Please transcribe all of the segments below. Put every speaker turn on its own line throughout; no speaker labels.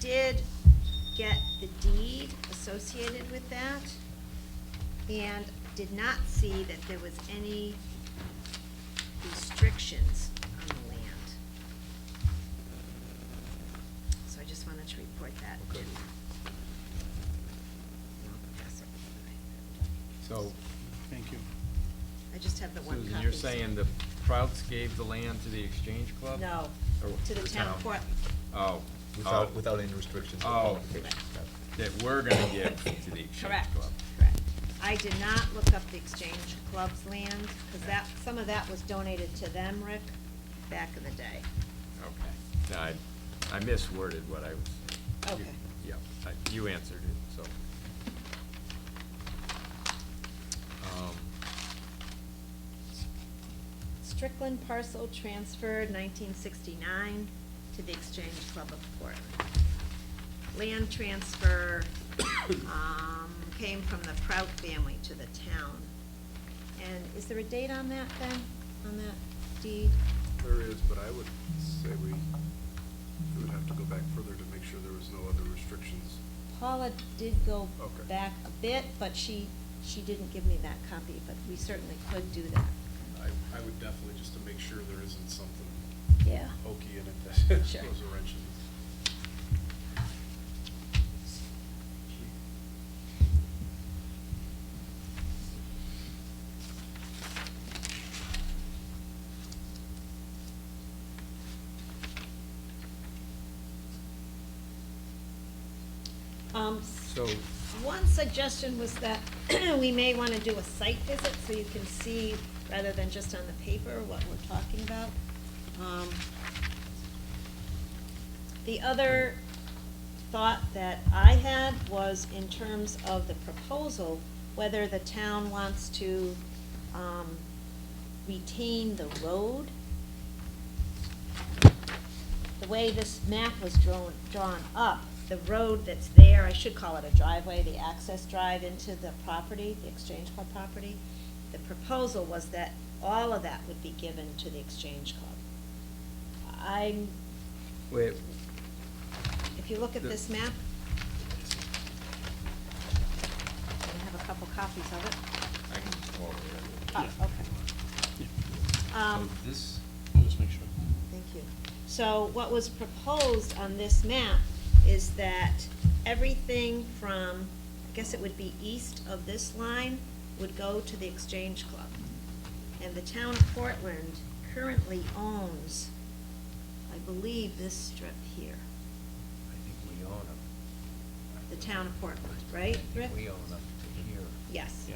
did get the deed associated with that and did not see that there was any restrictions on the land. So I just wanted to report that.
Okay.
Pass it.
So,
Thank you.
I just have the one copy.
Susan, you're
so-
saying the Prouts gave the land to the Exchange Club?
No,
Or
to the town court.
Oh.
Without,
oh,
without any restrictions. or
Oh.
qualifications.
That we're gonna give to the Exchange
Correct,
Club.
correct. I did not look up the Exchange Club's land, because that, some of that was donated to them, Rick, back in the day.
Okay. No, I, I misworded what I was.
Okay.
Yeah, I- you answered it, so. Um,
Strickland parcel transferred nineteen sixty-nine to the Exchange Club of Portland. Land transfer, um, came from the Prout family to the town. And is there a date on that, Ben, on that deed?
There is, but I would say we, we would have to go back further to make sure there was no other restrictions.
Paula did go
Okay.
back a bit, but she, she didn't give me that copy, but we certainly could do that.
I, I would definitely, just to make sure there isn't something
Yeah.
hokey in it that
Sure.
throws a wrench in it.
Um,
So,
one suggestion was that we may wanna do a site visit, so you can see, rather than just on the paper, what we're talking about. Um, The other thought that I had was in terms of the proposal, whether the town wants to, um, retain the road. The way this map was drawn, drawn up, the road that's there, I should call it a driveway, the access drive into the property, the Exchange Club property. The proposal was that all of that would be given to the Exchange Club. I'm,
wait,
if you look at
The-
this map, I have a couple copies of it.
I can just walk over
Oh,
Yeah.
okay. Um,
So This,
Just make sure.
Thank you. So what was proposed on this map is that everything from, I guess it would be east of this line, would go to the Exchange Club. And the town of Portland currently owns, I believe, this strip here,
I think we own them.
the town of Portland, right, Rick?
We own them to here,
Yes.
Yeah.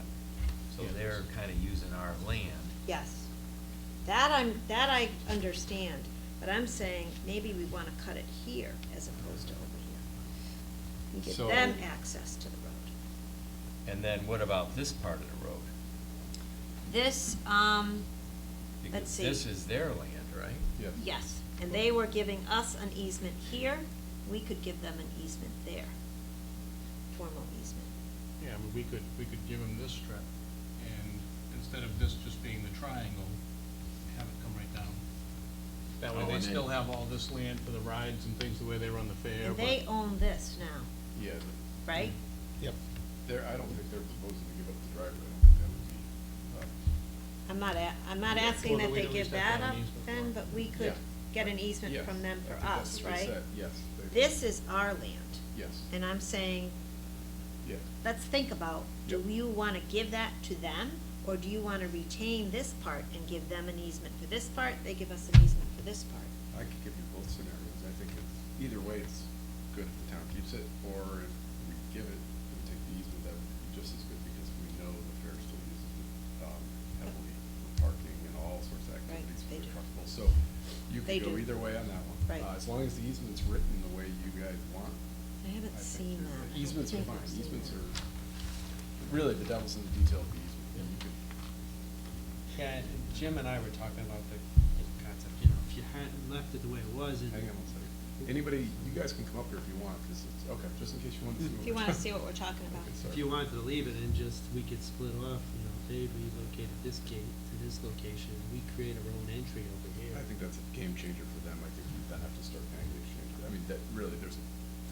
so they're kind of using our land.
Yes. That I'm, that I understand, but I'm saying maybe we wanna cut it here as opposed to over here. And give
So-
them access to the road.
and then what about this part of the road?
This, um, Let's
Because
see.
this is their land, right?
Yeah.
yes, and they were giving us an easement here, we could give them an easement there. Formal easement.
Yeah, but we could, we could give them this strip, and instead of this just being the triangle, have it come right down. That
Oh,
way they
and then-
still have all this land for the rides and things, the way they run the fair.
And
but-
they own this now,
Yeah, but
right?
Yep.
they're, I don't think they're proposing to give up the driveway. I don't think that would be, uh,
I'm not a, I'm not
Yeah,
asking
well,
that
we'd
they
at
give
least have
that
to have
up
an easement for
then,
it.
but we could
Yeah.
get an easement
yes,
from them
uh,
for
I think that's
us,
what they
right?
said, Yes. they-
This is our land.
Yes,
And I'm saying,
yes.
let's think about, do
Yep.
you wanna give that to them? Or do you wanna retain this part and give them an easement for this part, they give us an easement for this part?
I could give you both scenarios. I think it's, either way, it's good if the town keeps it, or if we give it and take the easement, that would be just as good because we know the fair still uses it um, heavily for parking and all sorts of
Right,
activities for
they
the
do.
constable. So you
They
could go
do.
either way on that one.
Right.
Uh, As long as the easement's written the way you guys want.
I haven't seen
think that-
that. I don't
Easements are
think
fine.
I've seen
Easements
that.
are, really, the devil's in the detail of the easement. You could
Yeah, and Jim and I were talking about the the concept, you know, if you hadn't left it the way it was and.
Hang on one second. Anybody, you guys can come up here if you want, because it's, okay, just in case you want to see.
If you
what
wanna
we're
see what we're talking
talking-
about.
Okay, sorry.
If you wanted to leave it and just, we could split off, you know, they relocated this gate to this location, we create our own entry over here.
I think that's a game changer for them. I think you then have to start paying the exchange. I mean, that, really, there's a